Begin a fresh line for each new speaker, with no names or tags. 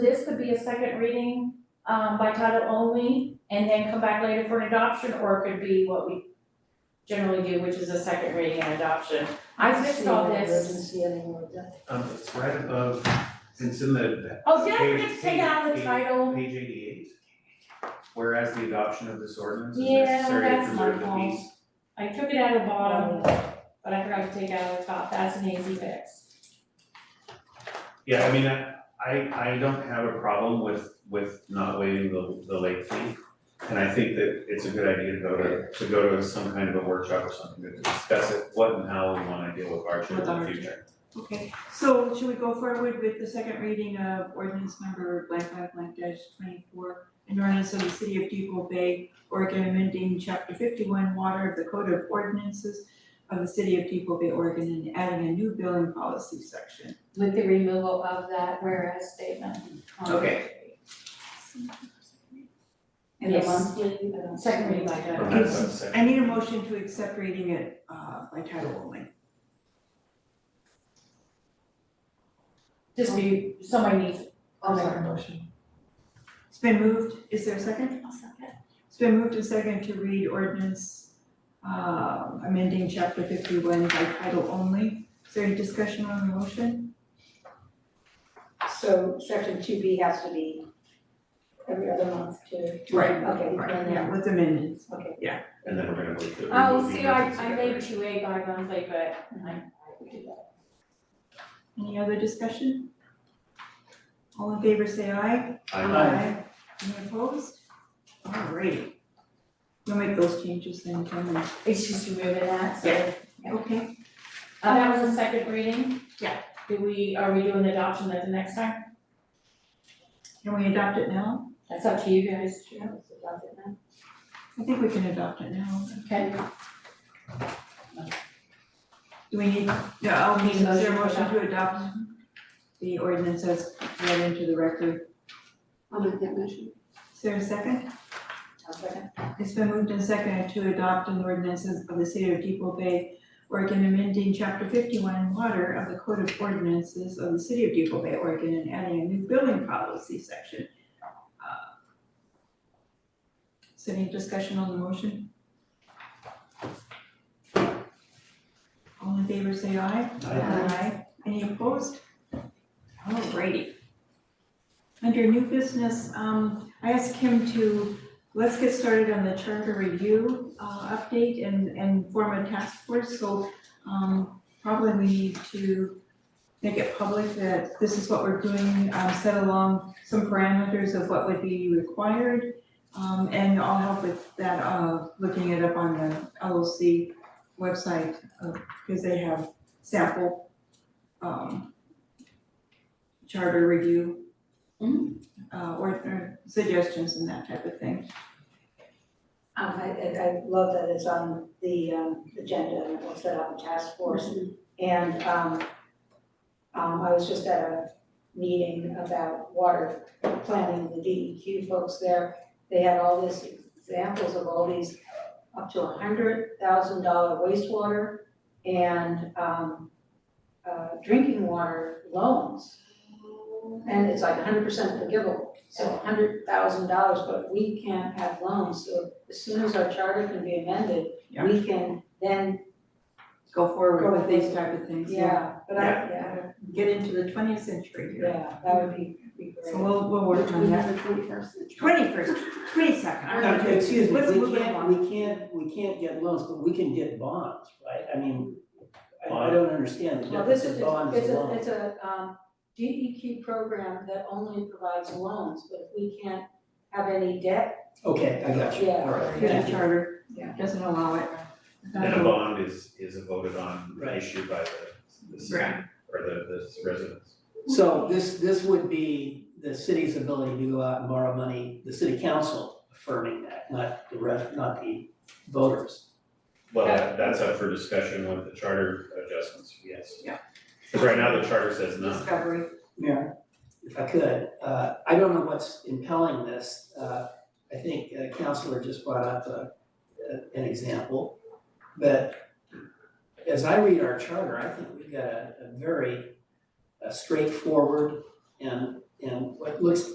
be a second reading, um, by title only, and then come back later for an adoption, or it could be what we generally do, which is a second reading and adoption. I fixed all this.
See any more of that?
Um, it's right above, it's in the
Oh, did I forget to take out the title?
page eighty-eight. Whereas the adoption of this ordinance is
Yeah,
necessary to
that's my
preserve the
fault.
peace.
I took it out of the bottom, but I forgot to take out the top, that's an easy fix.
Yeah, I mean, I, I, I don't have a problem with, with not waiving the, the late fee. And I think that it's a good idea to go to, to go to some kind of a workshop or something to discuss it, what and how we wanna deal with hardship in
With
the
hardship.
future.
Okay, so should we go forward with the second reading of ordinance number blank five blank dash twenty-four? An ordinance of the city of Depot Bay, Oregon, amending chapter fifty-one water of the code of ordinances of the city of Depot Bay, Oregon, and adding a new billing policy section.
With the removal of that whereas statement.
Okay.
And the
Yes.
monthly, I don't-
Second reading by title.
From that subsection.
I need a motion to accept reading it uh by title only.
Just be, somebody needs
I'll make a motion.
It's been moved, is there a second? It's been moved and second to read ordinance uh, amending chapter fifty-one by title only. Is there any discussion on the motion?
So section two B has to be every other month too.
Right.
Okay, and
Yeah,
then,
with amendments.
okay.
And then we're gonna move to.
Oh,
remove the
see, I,
emergency
I
declaration.
made two A by monthly, but I, I would do that.
Any other discussion? All in favor, say aye.
I'm-
Any opposed? All right. We'll make those changes then, Kim. and-
It's just removing that, so.
Yeah. Okay.
Uh, that was the second reading?
Yeah.
Do we, are we doing adoption at the next time?
Can we adopt it now?
That's up to you guys.
Yeah, let's adopt it now.
I think we can adopt it now.
Okay,
Do we need, no, I'll
Need a
need, is there a
motion
motion
for
to adopt the ordinance as read into the record?
I'll make that motion.
Is there a second?
I'll second.
It's been moved and seconded to adopt an ordinance of the city of Depot Bay, Oregon, amending chapter fifty-one water of the code of ordinances of the city of Depot Bay, Oregon, and adding a new building policy section. Uh, Is there any discussion on the motion? All in favor, say aye.
Aye.
Any opposed? Alrighty. Under new business, um, I asked Kim to, let's get started on the charter review, uh, update and, and form a task force, so, um, probably we need to make it public that this is what we're doing, um, set along some parameters of what would be required. Um, and I'll help with that, uh, looking it up on the LOC website, uh, because they have sample um charter review
Mm-hmm.
uh or or suggestions and that type of thing.
Um, I, I, I love that it's on the, um, agenda and we'll set up a task force. And, um, um, I was just at a meeting about water planning, the DEQ folks there. They had all these examples of all these up to a hundred thousand dollar wastewater and, um, uh, drinking water loans. And it's like hundred percent forgivable, so hundred thousand dollars, but we can't have loans, so as soon as our charter can be amended,
Yeah.
we can then,
Go forward
Go
with these
forward.
type of things, yeah.
yeah, but I, yeah,
Get into the twentieth century here.
yeah, that would be, be
So
great.
we'll we'll work on that.
twenty-first century.
Twenty first, twenty second.
Uh, Excuse me,
Let's move
we
it
can't,
along.
we can't, we can't get loans, but we can get bonds, right? I mean, I, I don't understand the
Well, this
difference
is,
of bonds
it's
and
a,
loans.
it's a, um, DEQ program that only provides loans, but if we can't have any debt,
Okay, I got you,
Yeah.
all right,
Yeah,
thank
the
you.
charter
Yeah.
doesn't allow it.
And a bond is, is a voted on
Right.
issue by the, the city
Right.
or the, the residents.
So this, this would be the city's ability to go out and borrow money, the city council affirming that, not the rest, not the voters.
Well, that, that's up for discussion with the charter adjustments, yes.
Yeah.
Cause right now the charter says no.
Discovery.
Mayor, if I could, uh, I don't know what's impelling this. Uh, I think uh, Counselor just brought up a, a- an example. But as I read our charter, I think we've got a, a very uh, straightforward and, and what looks